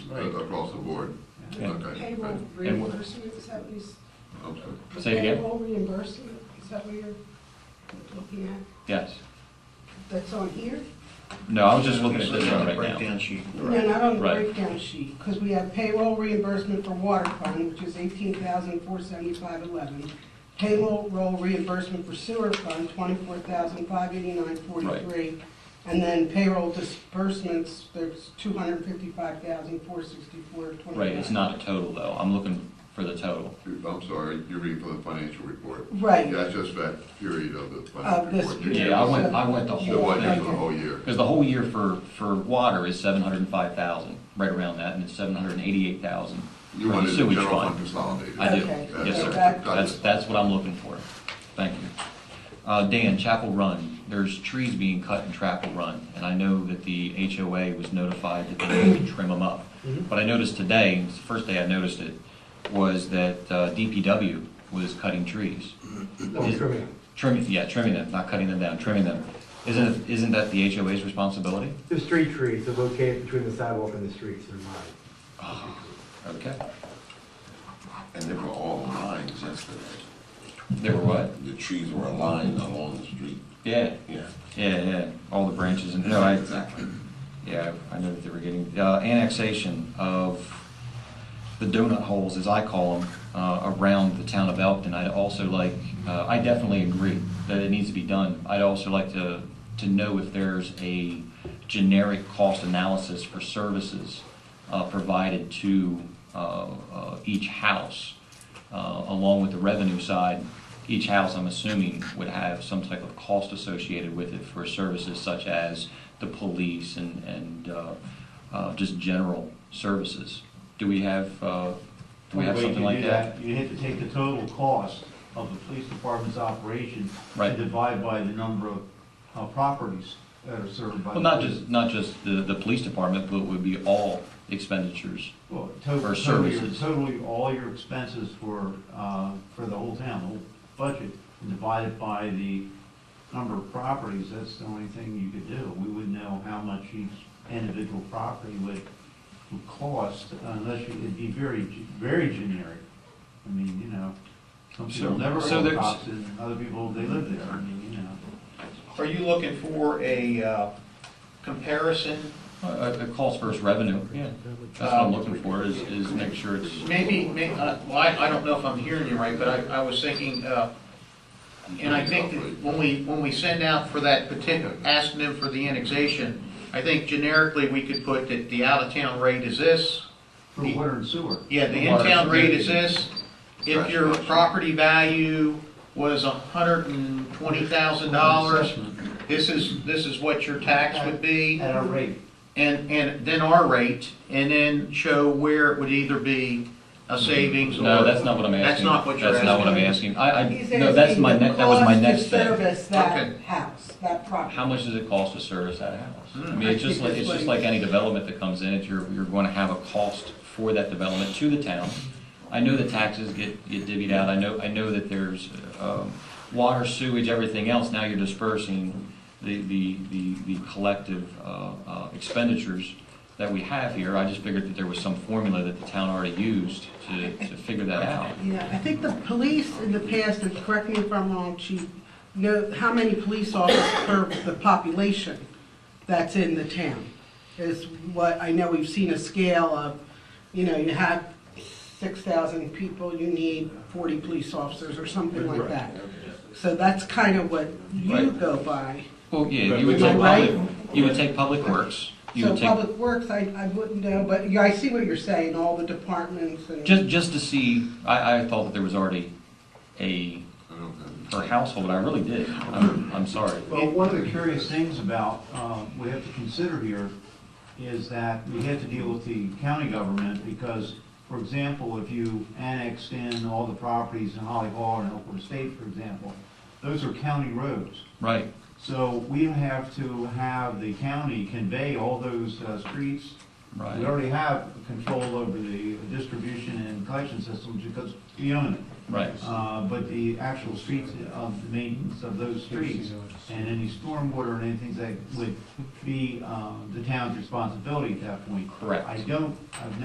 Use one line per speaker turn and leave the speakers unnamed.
uh, across the board.
Yeah.
Okay.
Payroll
right.
reimbursement, is that what you, s-
I'm sorry.
Say it again?
Payroll reimbursement, is that what you're looking at?
Yes.
That's on here?
No, I was just looking at this one right now.
Breakdown sheet.
No, not on the
Right.
breakdown sheet, because we have payroll reimbursement for water fund, which is eighteen thousand four seventy-five eleven. Payroll roll reimbursement for sewer fund, twenty-four thousand five eighty-nine forty-three. And then payroll disbursements, there's two hundred fifty-five thousand four sixty-four twenty-nine.
Right, it's not a total though. I'm looking for the total.
I'm sorry, you're reading from the financial report.
Right.
Yeah, it's just that period of the
Of
financial
this
report.
period.
Yeah, I went- I went the
The
whole
one
thing.
year for the whole year.
Because the whole year for, for water is seven hundred and five thousand, right around that, and it's seven hundred and eighty-eight thousand
You
for the
wanted the
sewage
general fund
fund.
consolidated.
I do,
Okay,
yes,
so
sir.
that-
That's, that's what I'm looking for. Thank you. Uh, Dan, Chapel Run, there's trees being cut in Chapel Run, and I know that the HOA was notified that they need to trim them up. But I noticed today, and it's the first day I noticed it, was that uh, DPW was cutting trees. Is- Trimming, yeah, trimming them, not cutting them down, trimming them. Isn't, isn't that the HOA's responsibility?
The street trees are located between the sidewalk and the streets, they're mine.
Okay.
And they were all aligned yesterday.
There were what?
The trees were aligned along the street.
Yeah,
Yeah.
yeah, yeah, all the branches and, no, I, yeah, I know that they were getting, uh, annexation of the donut holes, as I call them, uh, around the town of Elkton. I'd also like, uh, I definitely agree that it needs to be done. I'd also like to, to know if there's a generic cost analysis for services, uh, provided to, uh, uh, each house, uh, along with the revenue side. Each house, I'm assuming, would have some type of cost associated with it for services such as the police and, and, uh, uh, just general services. Do we have, uh, do we have
Way
something
to
like
do
that?
You have to take the total cost of the police department's operation
Right.
and divide by the number of uh, properties that are served by.
Well,
the
not
police.
just, not just the, the police department, but it would be all expenditures.
Well,
or
total, totally,
services.
totally all your expenses for, uh, for the whole town, the whole budget, and divide it by the number of properties, that's the only thing you could do. We would know how much each individual property would, would cost, unless you, it'd be very, ge- very generic. I mean, you know, some
So-
people never
so
own
there's-
property, and other people, they live there, I mean, you know.
Are you looking for a uh, comparison?
Uh, it calls for revenue, yeah. That's what I'm looking for, is, is make sure it's,
Maybe, may- uh, well, I I don't know if I'm hearing you right, but I I was thinking, uh, and I think that when we, when we send out for that particular, asking them for the annexation, I think generically, we could put that the out-of-town rate is this,
For water and sewer.
yeah, the in-town rate is this. If your property value was $120,000, this is, this is what your tax would be.
At our rate.
and, and then our rate, and then show where it would either be a savings or.
no, that's not what I'm asking.
That's not what you're
That's not what I'm asking.
asking.
I, I,
He's
no, that's
asking
my,
the
ne- that was my
cost to
next thing.
Service that
Okay.
house, that property.
How much does it cost to service that house? I mean,
I
it's just
think
like, it's
that's
just
what-
like any development that comes in, if you're, you're going to have a cost for that development to the town. I know that taxes get, get divvied out, I know, I know that there's, um, water, sewage, everything else, now you're dispersing the, the, the, the collective, uh, uh, expenditures that we have here, I just figured that there was some formula that the town already used to, to figure that out.
Yeah, I think the police in the past, and correct me if I'm wrong, chief, know how many police officers per the population that's in the town. Is what, I know we've seen a scale of, you know, you have six thousand people, you need forty police officers or something like that. So that's kind of what you
Right.
go by.
Well, yeah, you would
Am I
take public,
right?
you would take public works, you
So
would take
public works, I, I wouldn't know, but yeah, I see what you're saying, all the departments and.
Just, just to see, I, I thought that there was already a,
I don't have.
per household, I really did. I'm, I'm sorry.
Well, one of the curious things about, um, we have to consider here is that we have to deal with the county government because, for example, if you annexed in all the properties in Holly Hall and Elkhorn State, for example, those are county roads.
Right,
So we have to have the county convey all those uh, streets. We
right,
already have control over the distribution and collection systems because we own it.
right.
Uh, but the actual streets, of the maintenance of those streets, and any stormwater and anything that would be um, the town's uh, responsibility at that point.
Correct.
I don't, I've